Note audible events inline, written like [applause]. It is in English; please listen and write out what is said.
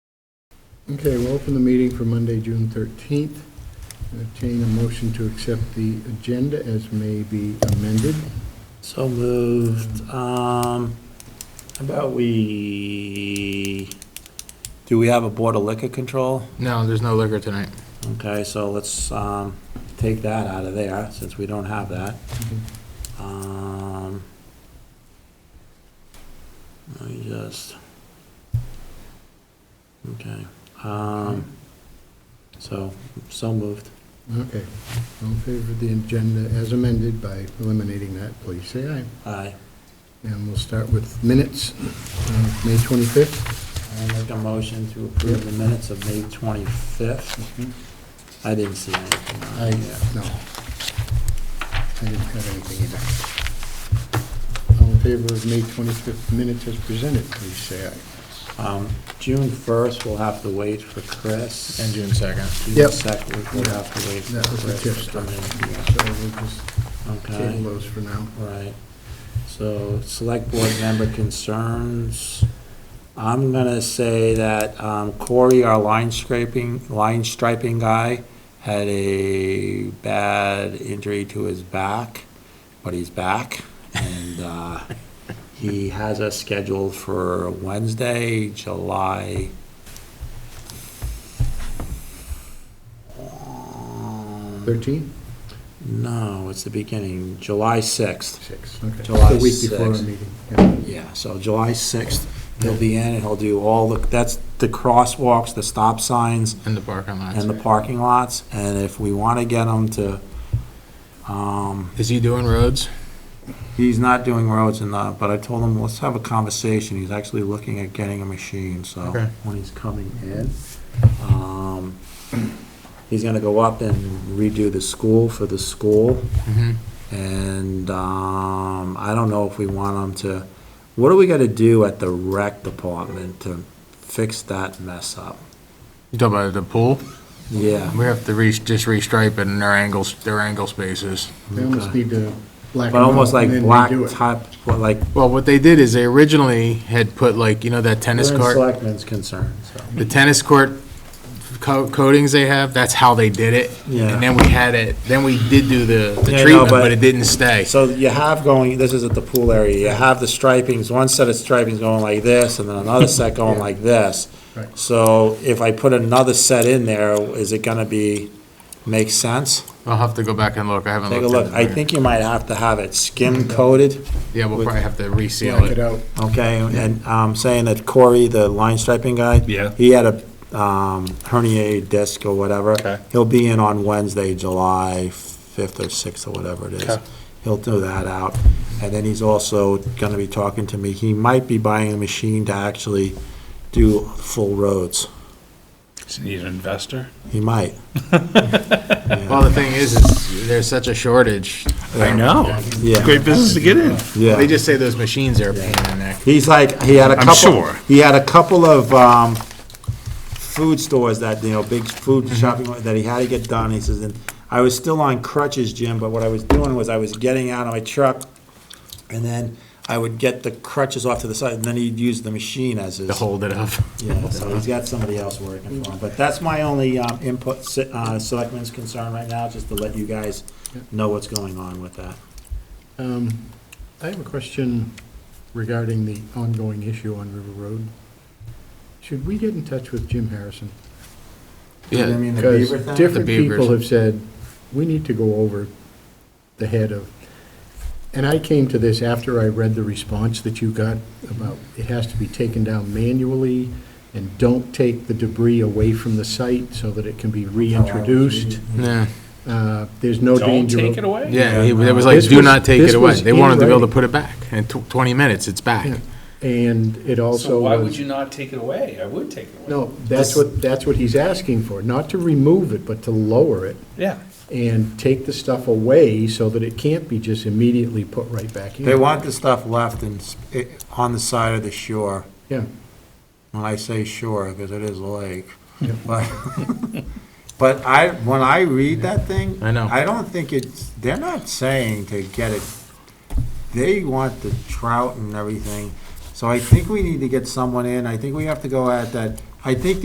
Okay, we'll open the meeting for Monday, June 13th. Entertain a motion to accept the agenda as may be amended. So moved. Um, how about we, do we have a Board of Liquor Control? No, there's no liquor tonight. Okay, so let's, um, take that out of there, since we don't have that. Um, let me just, okay, um, so, so moved. Okay, all in favor of the agenda as amended by eliminating that, please say aye. Aye. And we'll start with minutes, uh, May 25th. I'll make a motion to approve the minutes of May 25th. Mm-hmm. I didn't see anything I, on here. no. I didn't have anything either. All in favor of May 25th minutes as presented, please say aye. Um, June 1st, we'll have to wait for Chris. And June 2nd. June Yep. 2nd, we'll have to wait for That was the tip Chris to come stuff. in. So we'll just table Okay, those for now. right. So, select board member concerns. I'm gonna say that um, Corey, our line scraping, line striping guy, had a bad injury to his back, but he's back. And, uh, he has us scheduled for Wednesday, July um, 13? No, it's the beginning, July 6th. Six, okay. July The week before our sixth. meeting, yeah. Yeah, so July 6th, he'll be in, and he'll do all the, that's the crosswalks, the stop signs, And the parking and lots. the parking lots, and if we want to get him to, um, Is he doing roads? he's not doing roads and that, but I told him, let's have a conversation, he's actually looking at getting a machine, so, Okay. when he's coming in. um, He's gonna go up and redo the school for the school, Mm-hmm. And um, I don't know if we want them to, what do we got to do at the rec department to fix that mess up? You talking about the pool? Yeah. We have to re, just restripe it in their angles, their angle spaces. They almost need to black But them almost out like and then black redo it. top, what, like, Well, what they did is they originally had put like, you know, that tennis we're in court, selectmen's concern, so. the tennis court co- coatings they have, that's how they did it. Yeah. And then we had it, then we did do the, Yeah, I the know, treatment, but- but it didn't stay. So you have going, this is at the pool area, you have the stripings, one set of stripings going like this, and then another [laughs] set going Yeah. like this. Right. So if I put another set in there, is it gonna be, make sense? I'll have to go back and look. I haven't Take looked. a at look, I it. think you might have to have it skim coated. Yeah, we'll with- probably have to reseal Black it it. out. Okay, and I'm saying that Corey, the line striping guy. Yeah. He had a um, herniated disc or whatever. Okay. He'll be in on Wednesday, July 5th or 6th or whatever it is. Okay. He'll do that out. And then he's also going to be talking to me. He might be buying a machine to actually do full roads. Need an investor? He might. Well, the thing is, is there's such a shortage. I know. Yeah, Great business to get in. yeah. They just say those machines are a pain in the neck. He's like, he had a I'm couple. sure. He had a couple of, um, food stores that, you know, big food shopping that he had to get done. He says, and I was still on crutches, Jim, but what I was doing was I was getting out of my truck and then I would get the crutches off to the side and then he'd use the machine as his. to hold it up. Yeah, so he's got somebody else working for him. But that's my only, um, input, se- uh, selectmen's concern right now, just to let you guys know what's going on with that. Um, I have a question regarding the ongoing issue on River Road. Should we get in touch with Jim Harrison? You know what I Yeah, mean, the Because beaver thing? different The beavers. people have said, we need to go over the head of, and I came to this after I read the response that you got about it has to be taken down manually and don't take the debris away from the site so that it can Oh, be Oh, reintroduced. yeah, Uh, There's no Don't danger. take of- it away? yeah. It was like, This do was- not take this it away. was They wanted to be able to handwriting. put it back in tw- 20 minutes. It's Yeah. back. And it also. So why would was- you not take it away? I would take it away. No, that's what, that's what he's asking for, not to remove it, but to lower it Yeah. and take the stuff away so that it can't be just immediately put right back in. They want the stuff left and, s- it- on the side of the shore. Yeah. When I say shore, because it is a lake. Yeah. But [laughs] but I, when I read that thing. I know. I don't think it's, they're not saying to get it, they want the trout and everything. So I think we need to get someone in, I think we have to go at that, I think